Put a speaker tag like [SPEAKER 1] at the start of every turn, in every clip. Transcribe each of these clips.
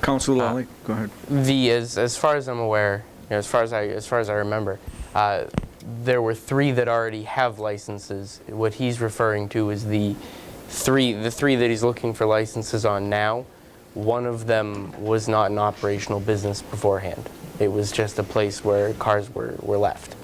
[SPEAKER 1] Council Lally, go ahead.
[SPEAKER 2] The as as far as I'm aware, you know, as far as I as far as I remember, uh, there were three that already have licenses. What he's referring to is the three the three that he's looking for licenses on now. One of them was not an operational business beforehand. It was just a place where cars were, were left.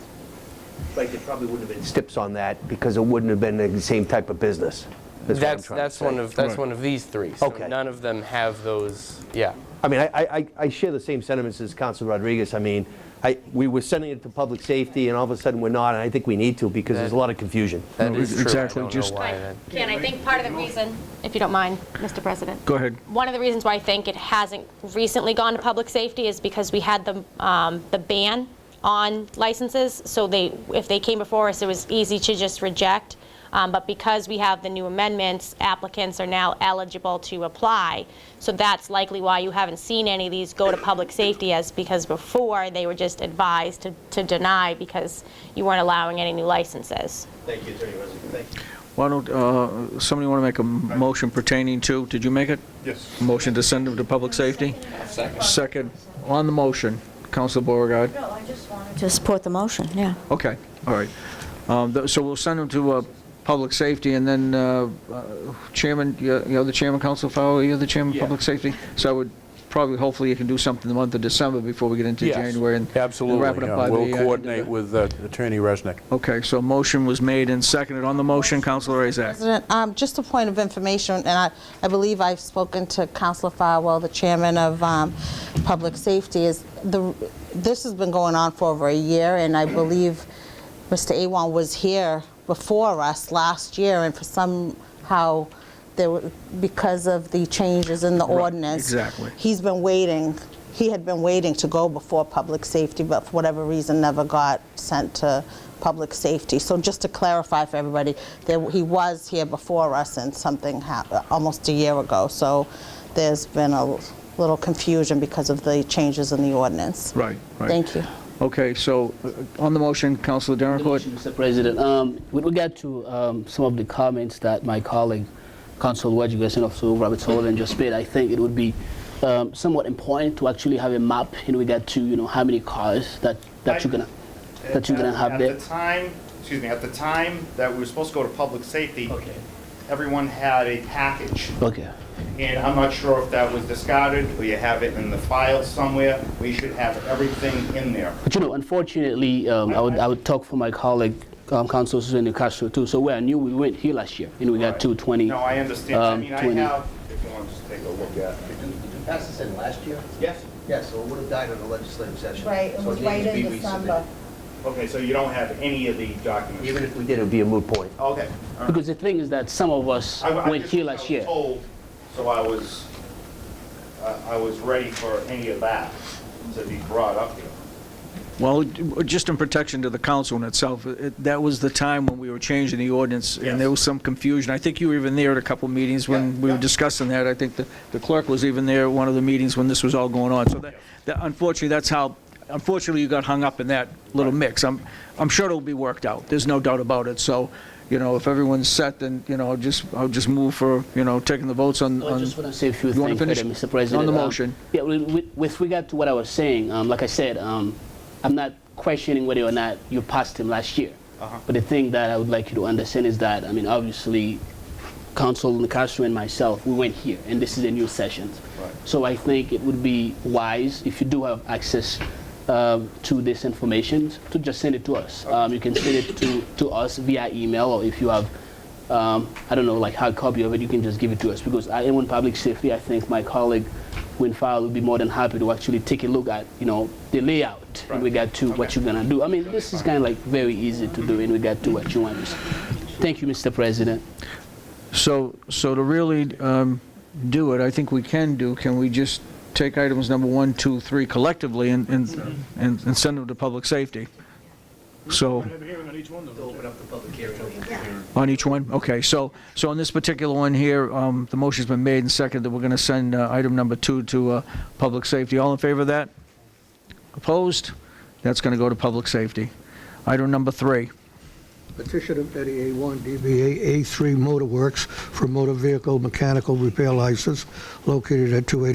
[SPEAKER 3] Right, there probably wouldn't have been stips on that because it wouldn't have been the same type of business. is what I'm
[SPEAKER 2] That's
[SPEAKER 3] trying to
[SPEAKER 2] that's
[SPEAKER 3] say.
[SPEAKER 2] one of that's
[SPEAKER 1] Right.
[SPEAKER 2] one of these three. So
[SPEAKER 3] Okay.
[SPEAKER 2] None of them have those. Yeah.
[SPEAKER 3] I mean, I, I, I- I share the same sentiments as Council Rodriguez. I mean, I, we were sending it to public safety and all of a sudden we're not, and I think we need to because there's a lot of confusion.
[SPEAKER 2] That
[SPEAKER 1] No,
[SPEAKER 2] is
[SPEAKER 1] ex-
[SPEAKER 2] true. I
[SPEAKER 1] exactly,
[SPEAKER 2] don't know
[SPEAKER 1] just-
[SPEAKER 2] why that-
[SPEAKER 4] Ken, I think part of the reason, if you don't mind, Mr. President.
[SPEAKER 1] Go ahead.
[SPEAKER 4] One of the reasons why I think it hasn't recently gone to public safety is because we had the, um, the ban on licenses, so they, if they came before us, it was easy to just reject. Um, But because we have the new amendments, applicants are now eligible to apply. So that's likely why you haven't seen any of these go to public safety as because before, they were just advised to to deny because you weren't allowing any new licenses.
[SPEAKER 5] Thank you, Attorney Rosen. Thank you.
[SPEAKER 1] Why don't, uh, somebody want to make a m- motion pertaining to, did you make it?
[SPEAKER 6] Yes.
[SPEAKER 1] Motion to send them to public safety? Second. Second. On the motion, Council Beauregard.
[SPEAKER 7] No, Oh, I just wanted to support the motion, yeah.
[SPEAKER 1] Okay, all right. Um, th- So we'll send them to uh, Public Safety, and then uh, uh, Chairman, you- you're the Chairman, Council Fowler, you're the Chairman of Public Safety? So I would probably, hopefully, you can do something the month of December before we get into
[SPEAKER 6] Yes,
[SPEAKER 1] January. and- and wrap it
[SPEAKER 6] Absolutely.
[SPEAKER 1] up
[SPEAKER 6] yeah.
[SPEAKER 1] by
[SPEAKER 6] We'll
[SPEAKER 1] the, uh,
[SPEAKER 6] coordinate with uh, Attorney Resnick.
[SPEAKER 1] Okay, so motion was made and seconded. On the motion, Councilor Azak.
[SPEAKER 8] President, um, just a point of information, and I, I believe I've spoken to Counselor Farwell, the chairman of um, Public Safety, is the, this has been going on for over a year, and I believe Mr. Awan was here before us last year, and for somehow, there were, because of the changes in the ordinance.
[SPEAKER 1] exactly.
[SPEAKER 8] He's been waiting, he had been waiting to go before Public Safety, but for whatever reason, never got sent to Public Safety. So just to clarify for everybody, there- he was here before us and something happened, almost a year ago. So there's been a little confusion because of the changes in the ordinance.
[SPEAKER 1] Right, right.
[SPEAKER 8] Thank you.
[SPEAKER 1] Okay, so uh, on the motion, Councilor Dernacourt?
[SPEAKER 9] Mr. President, um, with regard to um, some of the comments that my colleague, Council Rodriguez and also Robert Sullivan just made, I think it would be um, somewhat important to actually have a map in regard to, you know, how many cars that, that you're gonna, that you're gonna have there.
[SPEAKER 10] At the time, excuse me, at the time that we were supposed to go to public safety,
[SPEAKER 9] Okay.
[SPEAKER 10] everyone had a package,
[SPEAKER 9] Okay,
[SPEAKER 10] and I'm not sure if that was discarded, or you have it in the file somewhere. We should have everything in there.
[SPEAKER 9] but you know, unfortunately, um, I would, I would talk for my colleague, um, Council Susan De Castro too, so where I knew we went here last year in regard to 20.
[SPEAKER 10] No, I understand. I
[SPEAKER 9] um,
[SPEAKER 10] mean, I
[SPEAKER 9] 20.
[SPEAKER 10] have, if you want to just take a look at it.
[SPEAKER 5] Did you did you pass this in last year?
[SPEAKER 10] Yes?
[SPEAKER 5] Yes, so it would have died in the legislative session. So needs to be resubmitted.
[SPEAKER 10] Okay, so you don't have any of the documents?
[SPEAKER 5] Even if we did, it would be a moot point.
[SPEAKER 10] Okay. all right.
[SPEAKER 9] Because the thing is that some of us
[SPEAKER 10] I- I
[SPEAKER 9] went
[SPEAKER 10] just-
[SPEAKER 9] here last
[SPEAKER 10] I
[SPEAKER 9] year.
[SPEAKER 10] was told, so I was, I- I was ready for any of that to be brought up here.
[SPEAKER 1] Well, just in protection to the council in itself, it- that was the time when we were changing the ordinance, and there was some confusion. I think you were even there at a couple of meetings when we were discussing that. I think the the clerk was even there at one of the meetings when this was all going on. So that, that- unfortunately, that's how, unfortunately, you got hung up in that little mix. I'm, I'm sure it'll be worked out, there's no doubt about it. So, you know, if everyone's set, then, you know, I'll just, I'll just move for, you know, taking the votes on...
[SPEAKER 9] I just
[SPEAKER 1] on-
[SPEAKER 9] want to say a few
[SPEAKER 1] You wanna
[SPEAKER 9] things, further,
[SPEAKER 1] finish?
[SPEAKER 9] Mr. President.
[SPEAKER 1] On the
[SPEAKER 9] Um,
[SPEAKER 1] motion.
[SPEAKER 9] Yeah, with- with with regard to what I was saying, um, like I said, um, I'm not questioning whether or not you passed him last year. But the thing that I would like you to understand is that, I mean, obviously, Council Castro and myself, we went here, and this is a new session. So I think it would be wise, if you do have access um, to this information, to just send it to us. Um, You can send it to to us via email, or if you have um, I don't know, like hard copy of it, you can just give it to us because I am on public safety. I think my colleague Win Fowler will be more than happy to actually take a look at, you know, the layout in regard to what you're gonna do. I mean, this is kind of like very easy to do in regard to what you want. Thank you, Mr. President.
[SPEAKER 1] So, so to really um, do it, I think we can do, can we just take items number one, two, three collectively and, and, and and send them to public safety? So,
[SPEAKER 5] To open up the public hearing.
[SPEAKER 1] on each one? Okay, so, so on this particular one here, um, the motion's been made and seconded, we're going to send uh, item number two to uh, public safety. All in favor of that? Opposed? That's going to go to public safety. Item number three.
[SPEAKER 11] Petition of Betty A1, DBA A3 Motor Works for motor vehicle mechanical repair license located at 280